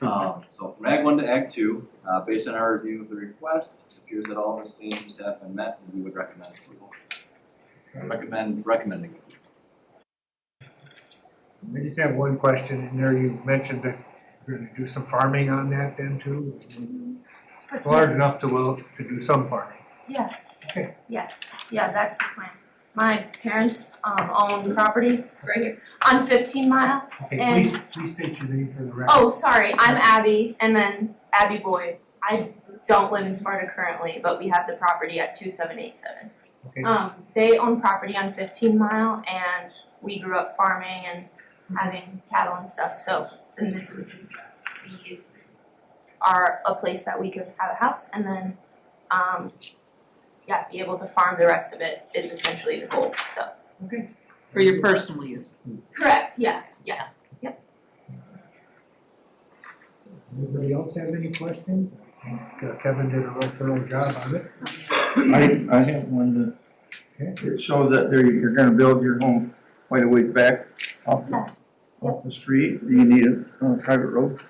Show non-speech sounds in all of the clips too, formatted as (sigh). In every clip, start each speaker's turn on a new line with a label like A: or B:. A: Um, so from Act One to Act Two, uh, based on our review of the request, it appears that all of the standards and staff have been met, and we would recommend approval. Recommend, recommending.
B: I just have one question in there. You mentioned that you're gonna do some farming on that then too. It's large enough to will, to do some farming.
C: Yeah.
B: Okay.
C: Yes, yeah, that's the plan. My parents um own property right here on fifteen mile.
B: Okay,
C: And-
B: please, please state your name for the record.
C: Oh, sorry, I'm Abby and then Abby Boyd. I don't live in Sparta currently, but we have the property at two seven eight seven.
B: Okay.
C: Um, they own property on fifteen mile and we grew up farming and having cattle and stuff, so then this would just be our, a place that we could have a house and then, um, yeah, be able to farm the rest of it is essentially the goal, so.
D: For your personal use.
C: Correct, yeah, yes, yep.
B: Anybody else have any questions? I think uh, Kevin did a real thorough job on it.
E: I,
C: (coughs)
E: I have one that, it shows that there, you're gonna build your home quite a ways back off the, off the street, do you need a, uh private road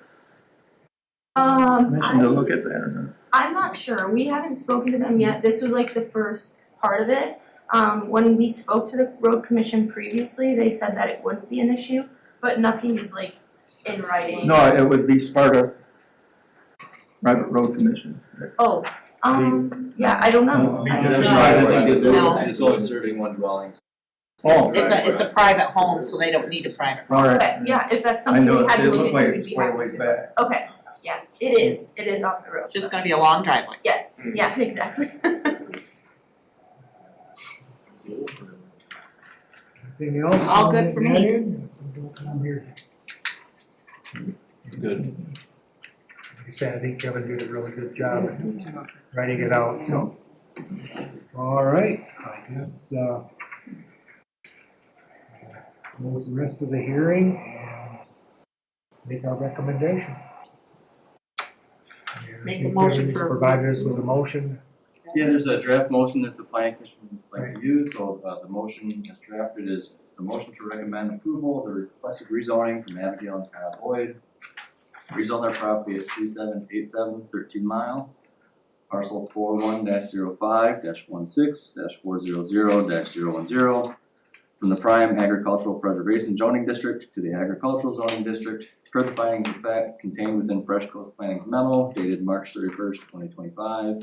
C: Um,
E: commission to look at that or not?
C: I'm not sure. We haven't spoken to them yet. This was like the first part of it. Um, when we spoke to the road commission previously, they said that it wouldn't be an issue, but nothing is like in writing.
E: No, it would be Sparta Private Road Commission.
C: Oh, um, yeah, I don't know.
B: We
C: I-
B: just-
D: No.
A: It's only serving one dwelling.
E: Oh,
D: It's a, it's a private home, so they don't need a private.
E: all
C: Okay,
E: right.
C: yeah, if that's
E: I
C: something
E: know,
C: we had
E: it
C: to
E: looked
C: look
E: like
C: into, we'd
E: it's
C: be
E: quite a
C: happy
E: ways
C: to.
E: back.
C: Okay, yeah, it is, it is off the road.
D: It's just gonna be a long driveway.
C: Yes,
E: Hmm.
C: yeah, (laughs) exactly.
B: Anything else?
D: All good for me.
B: Marion? I'm here.
F: Good.
B: Like I said, I think Kevin did a really good job at writing it out, so. All right, I guess, uh, close the rest of the hearing and make our recommendation.
D: Make a motion for-
B: Provide us with a
D: (laughs)
B: motion.
A: Yeah, there's a draft motion that the planning commission would like to
B: Right.
A: use, so, uh, the motion as drafted is the motion to recommend approval of the requested rezoning from Abigail and Kyle Boyd. Rezone their property at two seven eight seven thirteen mile, parcel four one dash zero five dash one six dash four zero zero dash zero one zero. From the prime agricultural preservation zoning district to the agricultural zoning district, per the findings of fact contained within Fresh Coast Planning's memo dated March thirty first, twenty twenty five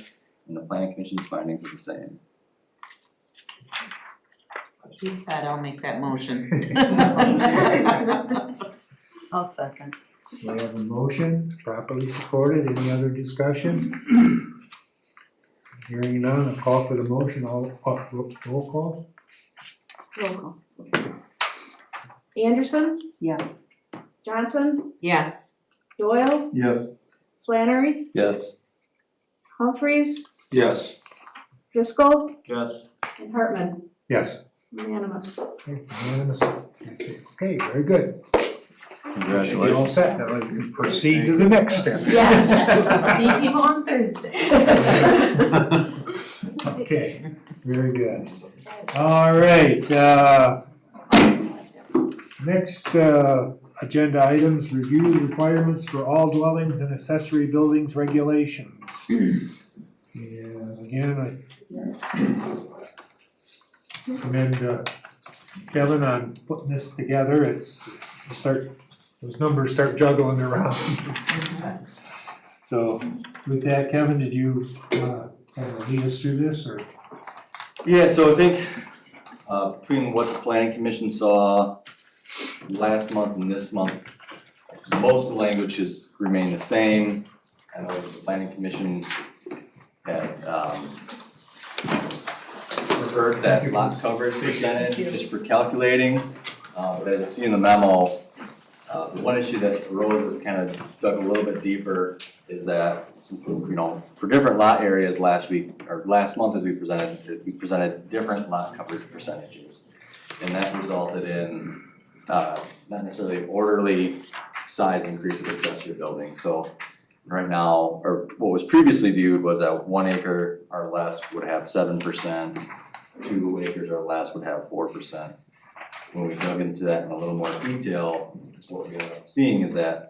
A: and the planning commission's findings are the same.
D: He said, I'll make that motion. (laughs) I'll second.
B: We have a motion properly supported. Any other discussion? Hearing none, a call for the motion. All, all- roll call?
G: Anderson,
D: Yes.
G: Johnson,
D: Yes.
G: Doyle,
E: Yes.
G: Flannery,
F: Yes.
G: Humphries,
F: Yes.
G: Driscoll,
F: Yes.
G: and Hartman.
B: Yes.
G: Unanimous.
B: Unanimous. Okay, very good. You're all
F: Congratulations.
B: set. Now we can proceed to the next step.
C: Yes, (laughs) see people on (laughs) Thursday.
B: Okay, very good. All right, uh, next, uh, agenda items, review requirements for all dwellings and accessory buildings regulations. And again, I commend uh, Kevin on putting this together, it's, you start, those numbers start juggling around. So with that, Kevin, did you, uh, kind of lead us through this, or?
A: Yeah, so I think uh between what the planning commission saw last month and this month, most of the language has remained the same. I know the planning commission had um preferred that lot coverage percentage just for calculating. Uh but as you see in the memo, uh the one issue that arose that kind of dug a little bit deeper is that, you know, for different lot areas last week, or last month as we presented, we presented different lot coverage percentages. And that resulted in, uh, not necessarily orderly size increase of accessory building, so right now, or what was previously viewed was that one acre or less would have seven percent, two acres or less would have four percent. When we dug into that in a little more detail, what we ended up seeing is that